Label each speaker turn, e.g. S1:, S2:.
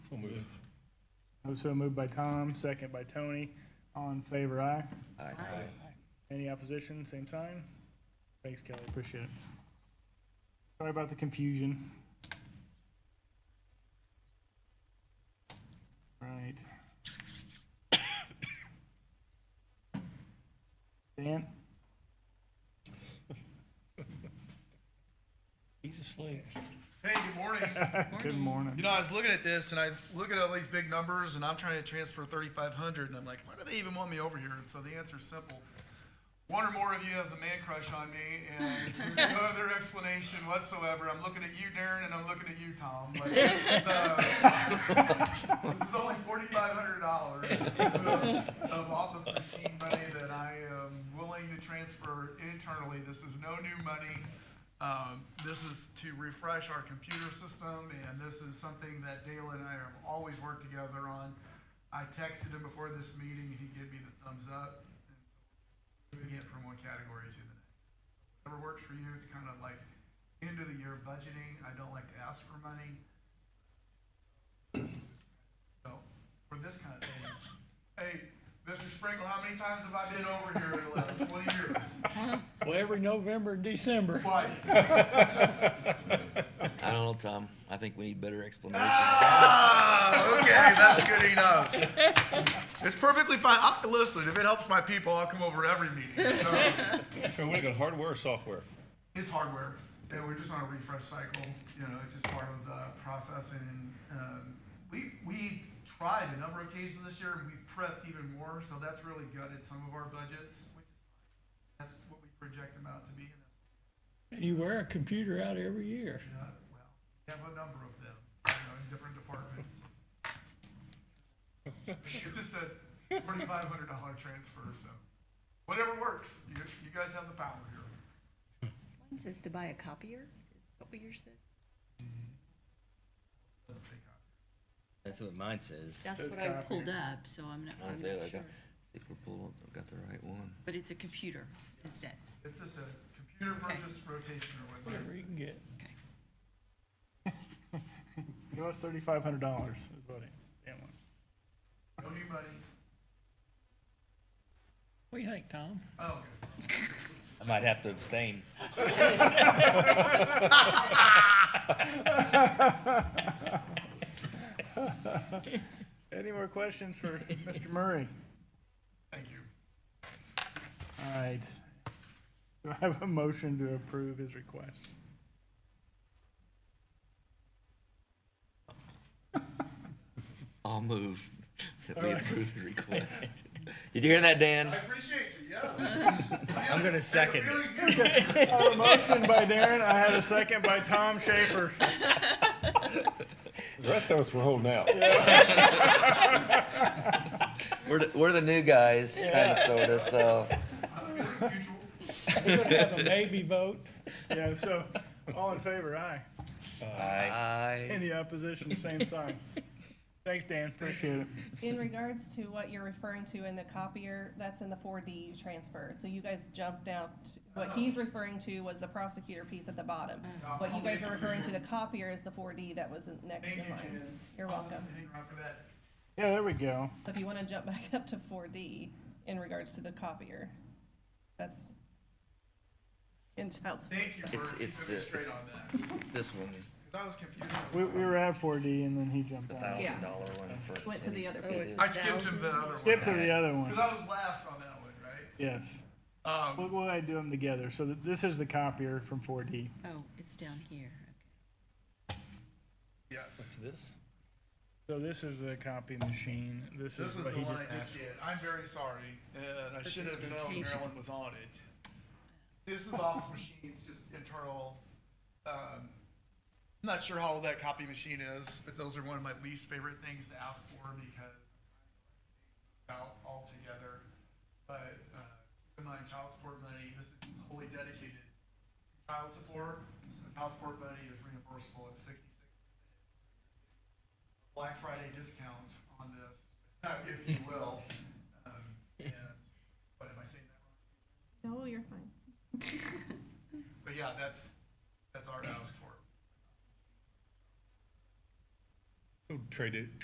S1: So move.
S2: Also moved by Tom, second by Tony. All in favor, aye.
S3: Aye.
S2: Any opposition, same sign? Thanks, Kelly, appreciate it. Sorry about the confusion. Right. Dan?
S1: He's asleep.
S4: Hey, good morning.
S2: Good
S4: You
S2: morning.
S4: know, I was looking at this and I look at all these big numbers and I'm trying to transfer 3,500 and I'm like, why do they even want me over here? And so the answer is simple. One or more of you has a man crush on me and there's no other explanation whatsoever. I'm looking at you, Darren, and I'm looking at you, Tom. Like, this, is, uh, this is only $4,500 of, of office machine money that I am willing to transfer internally. This is no new money. Um, This is to refresh our computer system, and this is something that Dale and I have always worked together on. I texted him before this meeting, and he gave me the thumbs up. and so Moving it from one category to the next. Whatever works for you, it's kind of like end of the year budgeting. I don't like to ask for money. So, for this kind of thing, hey, Mr. Sprinkle, how many times have I been over here in the last twenty years?
S1: Well, every November, and December.
S4: Twice.
S3: I don't know, Tom. um, I think we need better explanation.
S4: Ah, okay, that's good enough. It's perfectly fine. I, listen, if it helps my people, I'll come over every meeting.
S1: So
S4: So,
S1: we're looking at hardware or software?
S4: it's hardware, and we're just on a refresh cycle. You know, it's just part of the process. And um, we we tried a number of cases this year, and we prepped even more. So that's really gutted some of our budgets. Which is fine. That's what we project them out to be. And that's
S1: And you wear a computer out every year.
S4: not, well, we have a number of them, you know, in different departments. It's just a forty-five hundred dollar transfer, so whatever works. You, you guys have the power here.
S5: One says to buy a copier, is that what yours says?
S4: Doesn't say copy.
S6: That's what mine says.
S5: That's
S2: Says
S5: what I
S2: copier.
S5: pulled up, so I'm not,
S3: I
S5: I'm
S3: was there,
S5: not
S3: like, I-
S5: sure.
S3: See if we're pulling, I've got the right one.
S5: But it's a computer instead.
S4: It's just a computer
S5: Okay.
S4: purchase rotation or whatever.
S1: Whatever you can get.
S5: Okay.
S2: Give us thirty-five hundred dollars, is what it, Dan wants.
S4: No new money.
S1: What do you think, Tom?
S4: Oh, okay.
S6: I might have to abstain.
S2: Any more questions for Mr. Murray?
S4: Thank you.
S2: All right. Do I have a motion to approve his request?
S3: I'll move that we approve the request. Did you hear that, Dan?
S4: I appreciate you, yes.
S6: I'm gonna second it.
S4: Feeling good.
S2: I have a motion by Darren. I have a second by Tom Schaefer.
S7: The rest of us were holding out.
S3: We're, the- we're the new guys, kinda sorta, so.
S4: Feeling mutual.
S1: We're gonna have a maybe vote.
S2: Yeah, so all in favor, aye.
S6: Aye.
S3: Aye.
S2: Any opposition, same sign. Thanks, Dan. Appreciate it.
S8: In regards to what you're referring to in the copier, that's in the four D transfer. So you guys jumped out, to- what he's referring to was the prosecutor piece at the bottom.
S4: Mm.
S8: What you guys are referring to, the copier, is the four D that was next
S4: Thank
S8: in
S4: you,
S8: line.
S4: Jan.
S8: You're
S4: I'll just
S8: welcome.
S4: hang around for that.
S2: Yeah, there we go.
S8: So if you want to jump back up to four D in regards to the copier, that's in child support.
S4: Thank you for
S3: It's- it's
S4: keeping me
S3: the-
S4: straight
S3: it's-
S4: on that. 'Cause
S3: It's this one,
S4: I was confused.
S2: We, we were at 4D and then he
S3: the
S2: jumped out.
S3: thousand dollar one for.
S8: Went to the other
S3: it
S8: page.
S3: is.
S4: I skipped to the other one.
S2: Skip to the other
S4: Because
S2: one.
S4: I was last on that one, right?
S2: Yes.
S4: Um,
S2: We'll, we'll do them together. So th- this is the copier from 4D.
S5: Oh, it's down here.
S4: yes.
S6: This?
S2: So this is the copy machine. This
S4: This
S2: is
S4: is the
S2: what he
S4: one
S2: just
S4: I just
S2: asked.
S4: did. I'm very sorry, and I should have known
S5: rotation.
S4: Maryland was on it. This is office machines, just internal. Um, not sure how old that copy machine is, but those are one of my least favorite things to ask for because out altogether. But uh, keep in mind, child support money. This is wholly dedicated to child support. So child support money is reimbursable at sixty-six Black Friday discount on this, if you will. Um, and, what am I saying that wrong?
S8: No, you're fine.
S4: But yeah, that's, that's our house for.
S1: So trade it,